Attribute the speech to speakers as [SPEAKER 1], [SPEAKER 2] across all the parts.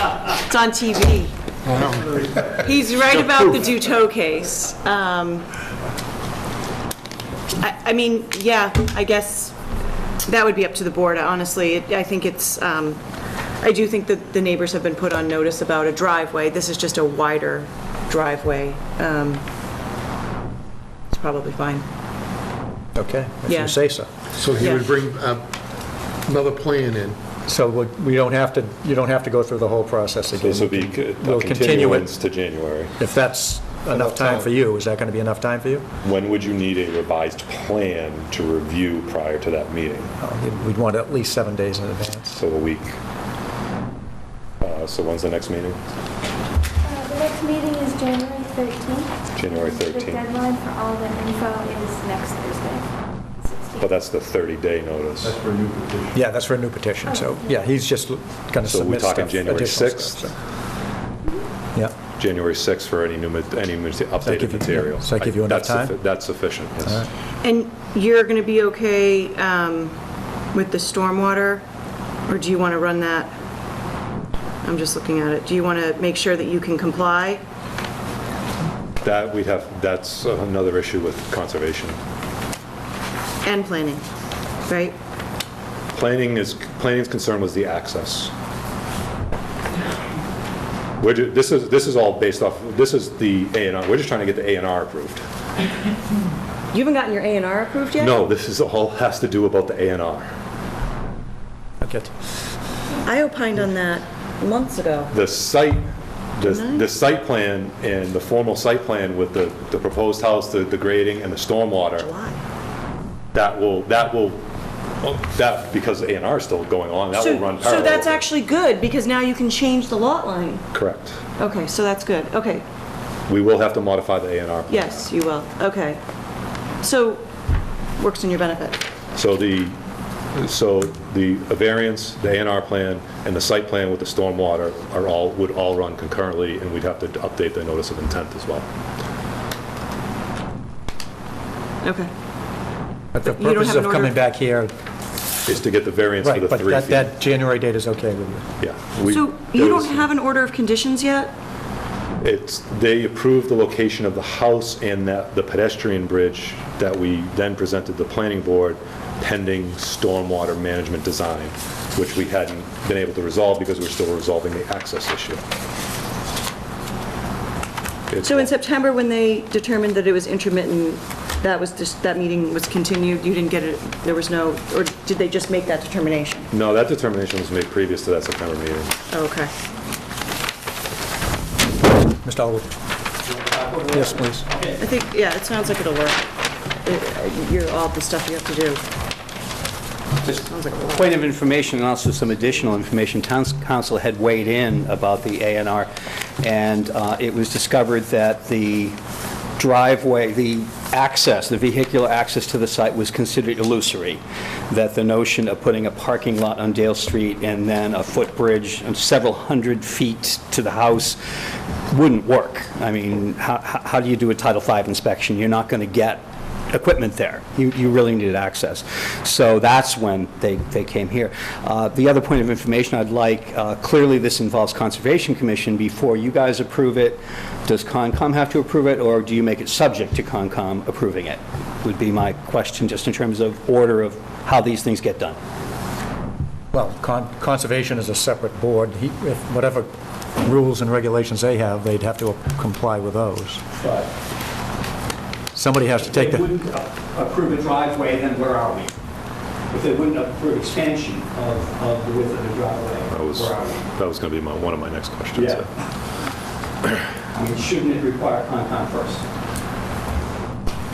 [SPEAKER 1] on TV. He's right about the Duto case. Um, I I mean, yeah, I guess that would be up to the board, honestly. It- I think it's, um, I do think that the neighbors have been put on notice about a driveway. This is just a wider driveway. Um, It's probably fine.
[SPEAKER 2] Okay, if
[SPEAKER 1] Yeah.
[SPEAKER 2] you say so.
[SPEAKER 3] So he
[SPEAKER 1] Yeah.
[SPEAKER 3] would bring uh, another plan in.
[SPEAKER 2] So what- we don't have to, you don't have to go through the whole process again.
[SPEAKER 4] This will be c-
[SPEAKER 2] We'll
[SPEAKER 4] a
[SPEAKER 2] continue it
[SPEAKER 4] continuance to January.
[SPEAKER 2] if that's enough time for you. Is that going to be enough time for you?
[SPEAKER 4] When would you need a revised plan to review prior to that meeting?
[SPEAKER 2] Oh, We'd want at least seven days in advance.
[SPEAKER 4] So a week. Uh, So when's the next meeting?
[SPEAKER 5] Uh, The next meeting is January 13th.
[SPEAKER 4] January
[SPEAKER 5] The
[SPEAKER 4] 13th.
[SPEAKER 5] deadline for all the info is next Thursday, 16th.
[SPEAKER 4] But that's the 30-day notice.
[SPEAKER 2] Yeah, that's for a new petition, so, yeah, he's just going to
[SPEAKER 4] So we're
[SPEAKER 2] submit stuff,
[SPEAKER 4] talking
[SPEAKER 2] additional
[SPEAKER 4] January
[SPEAKER 2] stuff.
[SPEAKER 4] 6th,
[SPEAKER 2] so. Yeah,
[SPEAKER 4] January 6th for any new, mat- any mat-
[SPEAKER 2] give
[SPEAKER 4] updated
[SPEAKER 2] you-
[SPEAKER 4] material.
[SPEAKER 2] does that give you enough
[SPEAKER 4] That's suffi-
[SPEAKER 2] time?
[SPEAKER 4] That's sufficient, yes.
[SPEAKER 1] And you're going to be okay um, with the stormwater, or do you want to run that? I'm just looking at it. Do you want to make sure that you can comply?
[SPEAKER 4] That we'd have, that's another issue with conservation.
[SPEAKER 1] And planning, right?
[SPEAKER 4] Planning is, planning's concern was the access. We're, ju- this is, this is all based off, this is the A and R, we're just trying to get the A and R approved.
[SPEAKER 1] You haven't gotten your A and R approved yet?
[SPEAKER 4] No, this is all, has to do about the A and R.
[SPEAKER 2] okay.
[SPEAKER 1] I opined on that months ago.
[SPEAKER 4] The site, the, the site plan and the formal site plan with the, the proposed house, the, the grading and the stormwater,
[SPEAKER 1] Why?
[SPEAKER 4] that will, that will, oh, that, because the A and R is still going on, that will run
[SPEAKER 1] So
[SPEAKER 4] parallel.
[SPEAKER 1] so that's actually good, because now you can change the lot line.
[SPEAKER 4] Correct.
[SPEAKER 1] Okay, so that's good. Okay,
[SPEAKER 4] We will have to modify the A and R.
[SPEAKER 1] yes, you will. Okay. So, works in your benefit.
[SPEAKER 4] So the, so the variance, the A and R plan, and the site plan with the stormwater are all, would all run concurrently, and we'd have to update the notice of intent as well.
[SPEAKER 1] Okay.
[SPEAKER 2] But the
[SPEAKER 1] you don't
[SPEAKER 2] purpose
[SPEAKER 1] have an
[SPEAKER 2] of
[SPEAKER 1] order
[SPEAKER 2] coming
[SPEAKER 1] of-
[SPEAKER 2] back here,
[SPEAKER 4] Is to get the variance for
[SPEAKER 2] right,
[SPEAKER 4] the
[SPEAKER 2] but
[SPEAKER 4] three
[SPEAKER 2] that,
[SPEAKER 4] feet.
[SPEAKER 2] that January date is okay with you?
[SPEAKER 4] Yeah. we-
[SPEAKER 1] So
[SPEAKER 4] there
[SPEAKER 1] you
[SPEAKER 4] was-
[SPEAKER 1] don't have an order of conditions yet?
[SPEAKER 4] It's, they approved the location of the house and that, the pedestrian bridge that we then presented the planning board pending stormwater management design, which we hadn't been able to resolve because we we're still resolving the access issue. It's-
[SPEAKER 1] So in September, when they determined that it was intermittent, that was just, that meeting was continued, you didn't get it, there was no, or did they just make that determination?
[SPEAKER 4] No, that determination was made previous to that September meeting.
[SPEAKER 1] Okay.
[SPEAKER 2] Mr. Elwood? Yes, please.
[SPEAKER 1] I think, yeah, it sounds like it'll work. It- You're, all the stuff you have to do.
[SPEAKER 6] Just
[SPEAKER 1] Sounds like a lot.
[SPEAKER 6] Point of information, and also some additional information, Town Council had weighed in about the A and R, and uh, it was discovered that the driveway, the access, the vehicular access to the site was considered illusory, that the notion of putting a parking lot on Dale Street and then a footbridge and several hundred feet to the house wouldn't work. I mean, how- how how do you do a Title V inspection? You're not going to get equipment there. You, you really needed access. So that's when they, they came here. Uh, The other point of information I'd like, uh, clearly this involves Conservation Commission. Before you guys approve it, does Concom have to approve it, or do you make it subject to Concom approving it? Would be my question, just in terms of order of how these things get done.
[SPEAKER 2] Well, con- conservation is a separate board. He- if Whatever rules and regulations they have, they'd have to comply with those. Somebody has to take the...
[SPEAKER 6] uh, approve a driveway, then where are we? If they wouldn't approve expansion of, of the width of the
[SPEAKER 4] That
[SPEAKER 6] driveway,
[SPEAKER 4] was, that was going to be my, one of my next questions.
[SPEAKER 6] Yeah. I mean, shouldn't it require Concom first?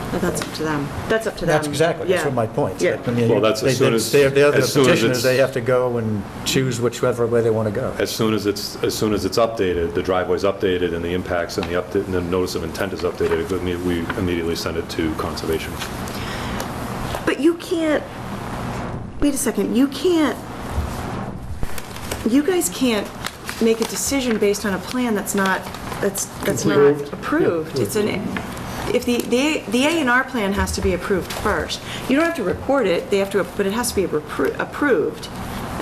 [SPEAKER 1] But that's up to them. That's up to them.
[SPEAKER 2] That's exactly, that's
[SPEAKER 1] Yeah.
[SPEAKER 2] what my point.
[SPEAKER 1] Yeah.
[SPEAKER 2] I mean,
[SPEAKER 4] Well, that's as
[SPEAKER 2] they-
[SPEAKER 4] soon
[SPEAKER 2] they-
[SPEAKER 4] as-
[SPEAKER 2] They're they're the
[SPEAKER 4] as soon as
[SPEAKER 2] petitioners,
[SPEAKER 4] it's-
[SPEAKER 2] they have to go and choose whichever way they want to go.
[SPEAKER 4] As soon as it's, as soon as it's updated, the driveway's updated and the impacts and the update, and the notice of intent is updated, we imme- we immediately send it to conservation.
[SPEAKER 1] But you can't, wait a second, you can't, you guys can't make a decision based on a plan that's not, that's, that's not approved. It's an, if the, the the A and R plan has to be approved first. You don't have to report it, they have to, but it has to be appro- approved.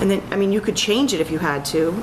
[SPEAKER 1] And then, I mean, you could change it if you had to,